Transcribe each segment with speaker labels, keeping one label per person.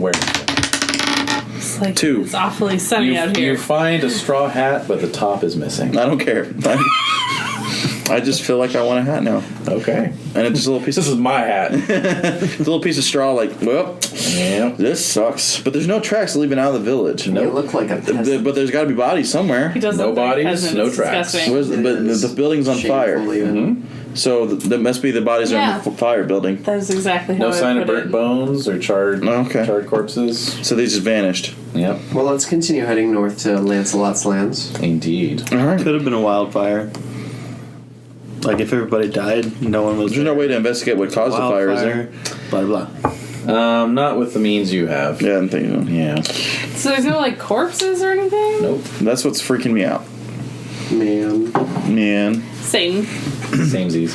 Speaker 1: Where
Speaker 2: It's like
Speaker 3: Two.
Speaker 2: It's awfully sunny
Speaker 1: you,
Speaker 2: out here.
Speaker 1: you find a straw hat, but the top is missing.
Speaker 3: I don't care. i I just feel like I want a hat now,
Speaker 1: Okay,
Speaker 3: and it's just a little piece. Of,
Speaker 1: this is my hat.
Speaker 3: it's a little piece of straw. Like, well,
Speaker 1: yeah.
Speaker 3: this sucks. But there's no tracks leaving out of the village.
Speaker 4: It
Speaker 3: No,
Speaker 4: looked like a
Speaker 3: Th- th-
Speaker 4: peasant.
Speaker 3: but there's got to be bodies somewhere.
Speaker 2: he does
Speaker 1: no
Speaker 2: look like a
Speaker 1: bodies,
Speaker 2: peasant.
Speaker 1: no
Speaker 2: It's
Speaker 1: tracks.
Speaker 2: disgusting.
Speaker 3: Where's the,
Speaker 4: It
Speaker 3: but the,
Speaker 4: is
Speaker 3: the building's on
Speaker 4: shameful,
Speaker 3: fire,
Speaker 4: even.
Speaker 1: Mm-hmm.
Speaker 3: so th- that must be the bodies are in
Speaker 2: Yeah.
Speaker 3: the f- fire building.
Speaker 2: That is exactly how
Speaker 1: No
Speaker 2: I
Speaker 1: sign of
Speaker 2: put
Speaker 1: burnt
Speaker 2: it.
Speaker 1: bones or charred
Speaker 3: Oh, okay.
Speaker 1: charred corpses.
Speaker 3: So they just vanished.
Speaker 1: Yep,
Speaker 4: Well, let's continue heading north to Lancelot's lands.
Speaker 1: indeed.
Speaker 3: All right.
Speaker 5: Could have been a wildfire. Like if everybody died, no one was.
Speaker 3: There's no way to investigate what caused the fire, is there?
Speaker 5: Wildfire, Blah blah.
Speaker 1: Um, not with the means you have.
Speaker 3: Yeah, I'm thinking.
Speaker 1: Yeah.
Speaker 2: So there's no like corpses or anything.
Speaker 1: Nope.
Speaker 3: That's what's freaking me out,
Speaker 4: Man,
Speaker 3: man.
Speaker 2: Satan.
Speaker 1: Samesies.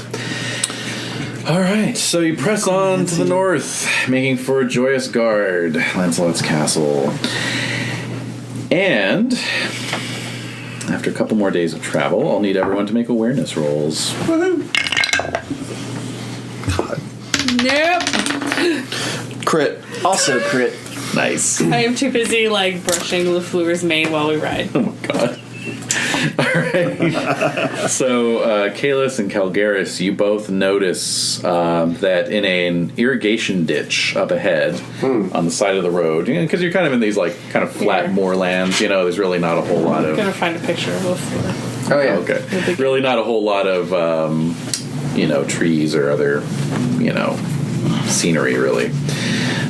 Speaker 1: All right, so you press on to the north, making for Joyous Guard, Lancelot's castle. And after a couple more days of travel, I'll need everyone to make awareness rolls.
Speaker 2: Nope.
Speaker 5: Crit. Also crit.
Speaker 1: Nice.
Speaker 2: I am too busy like brushing Lafleur's mane while we ride.
Speaker 1: God. All right. so, uh, Kalis and Calgaris, you both notice um, that in an irrigation ditch up ahead on the side of the road, because you are kind of in these like kind of flat
Speaker 2: Yeah.
Speaker 1: moorlands, you know, there's really not a whole lot
Speaker 2: I'm gonna
Speaker 1: of.
Speaker 2: find a picture of Lafleur.
Speaker 4: Oh yeah.
Speaker 1: Okay. Really not a whole lot of, um, you know, trees or other, you know, scenery really.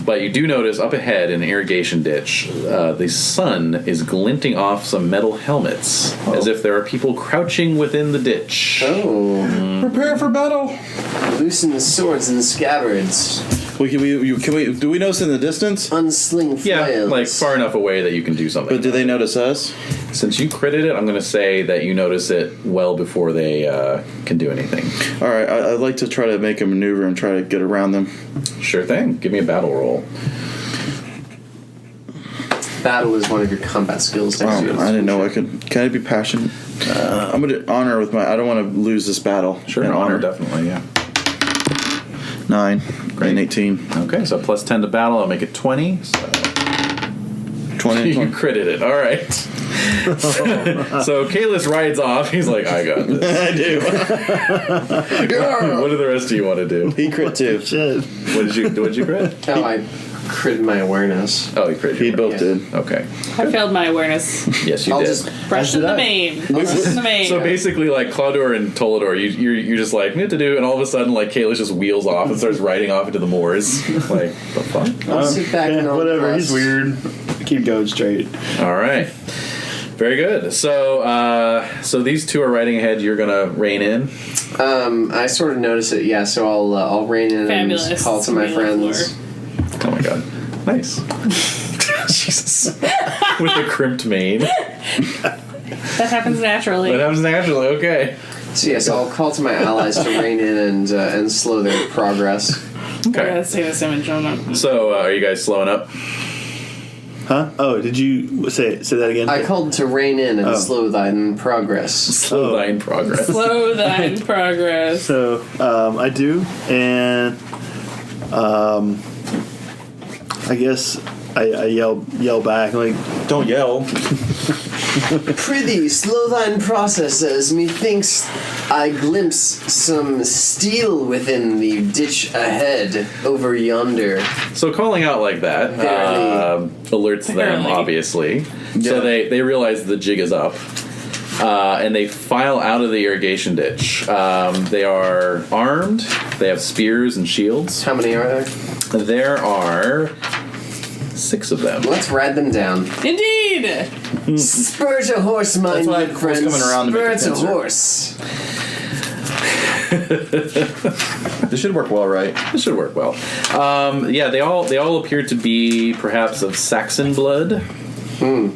Speaker 1: But you do notice up ahead in an irrigation ditch, uh, the sun is glinting off some metal helmets as if there are people crouching within the ditch.
Speaker 4: Oh,
Speaker 3: Prepare for battle.
Speaker 4: loosen the swords and scabbards,
Speaker 3: Well, can we? You, can we? Do we notice in the distance?
Speaker 4: unsling flails.
Speaker 1: Yeah, like far enough away that you can do something.
Speaker 3: But do they notice us?
Speaker 1: Since you critted it, I'm going to say that you notice it well before they uh, can do anything.
Speaker 3: All right, I, I'd like to try to make a maneuver and try to get around them.
Speaker 1: Sure thing. Give me a battle roll.
Speaker 4: Battle is one of your combat skills.
Speaker 3: Oh,
Speaker 4: next to yours.
Speaker 3: I didn't know I could. Can I be passionate? Uh, I'm gonna honor with my. I don't want to lose this battle.
Speaker 1: Sure,
Speaker 3: And
Speaker 1: honor definitely. Yeah.
Speaker 3: nine and eighteen.
Speaker 1: Okay, so plus ten to battle. I'll make it twenty. So
Speaker 3: 20
Speaker 1: you critted it. All right. so Kalis rides off. He's like, I got this.
Speaker 3: I do.
Speaker 1: what do the rest of you want to do?
Speaker 3: He crit too.
Speaker 5: Shit.
Speaker 1: What did you What did you crit?
Speaker 4: Oh, I critted my awareness.
Speaker 1: Oh, you crit.
Speaker 3: He
Speaker 1: your-
Speaker 3: both did.
Speaker 1: Okay.
Speaker 2: I failed my awareness.
Speaker 1: Yes, you
Speaker 4: I'll
Speaker 1: did.
Speaker 4: just
Speaker 2: Brushing
Speaker 5: did
Speaker 2: the
Speaker 5: I.
Speaker 2: mane. Brushing the mane.
Speaker 1: so basically, like Claudor and Tolador, you you're, you're just like need to do, and all of a sudden, like Kalis just wheels off and starts riding off into the moors. like the fuck.
Speaker 4: I'll sit back and I'll
Speaker 5: whatever. He's
Speaker 4: bless.
Speaker 5: weird. Keep going straight.
Speaker 1: All right. Very good. So, uh, so these two are riding ahead. You're gonna rein in.
Speaker 4: Um, I sort of notice it. Yeah, so I'll uh, I'll rein in
Speaker 2: Fabulous.
Speaker 4: and call to my
Speaker 2: Fabulous
Speaker 4: friends.
Speaker 1: Oh my god. Nice. Jesus. With the crimped mane. That
Speaker 2: That happens naturally.
Speaker 1: happens naturally. Okay.
Speaker 4: So yes, I'll call to my allies to rein in and uh, and slow their progress.
Speaker 2: I
Speaker 1: Okay.
Speaker 2: gotta see this image. I'm not-
Speaker 1: So, uh, are you guys slowing up?
Speaker 3: Oh.
Speaker 5: Huh? Oh, did you say say that again?
Speaker 4: I called to rein in and
Speaker 5: Oh.
Speaker 4: slow thine progress.
Speaker 1: Slow thine progress.
Speaker 2: Slow thine progress.
Speaker 5: So um, I do, and um, I guess I, I yell yell back like,
Speaker 3: Don't yell.
Speaker 4: Prithee, slow thine processes. Methinks I glimpse some steel within the ditch ahead over yonder.
Speaker 1: So, calling out like that um, alerts them,
Speaker 2: Barely.
Speaker 1: obviously. So they they realize the jig is up. Uh, and they file out of the irrigation ditch. Um, they are armed. They have spears and shields.
Speaker 4: How many are there?
Speaker 1: There are six of them.
Speaker 4: Let's ride them down.
Speaker 2: Indeed!
Speaker 4: Spur to horse, my
Speaker 3: That's why
Speaker 4: good
Speaker 3: I was
Speaker 4: friends.
Speaker 3: coming around to make a
Speaker 4: Spur
Speaker 3: fencer.
Speaker 4: horse.
Speaker 3: This should work well, right?
Speaker 1: This should work well. Um, yeah, they all they all appear to be perhaps of Saxon blood,
Speaker 4: I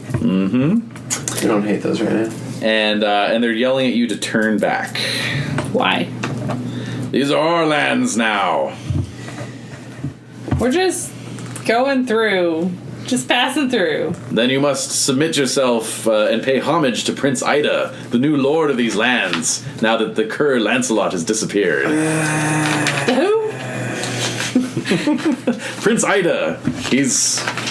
Speaker 4: don't hate those right now.
Speaker 1: and uh, and they're yelling at you to turn back.
Speaker 2: Why?
Speaker 1: These are our lands now.
Speaker 2: We're just going through, just passing through.
Speaker 1: Then you must submit yourself uh, and pay homage to Prince Ida, the new lord of these lands. Now that the cur Lancelot has disappeared,
Speaker 2: Who?
Speaker 1: Prince Ida. He's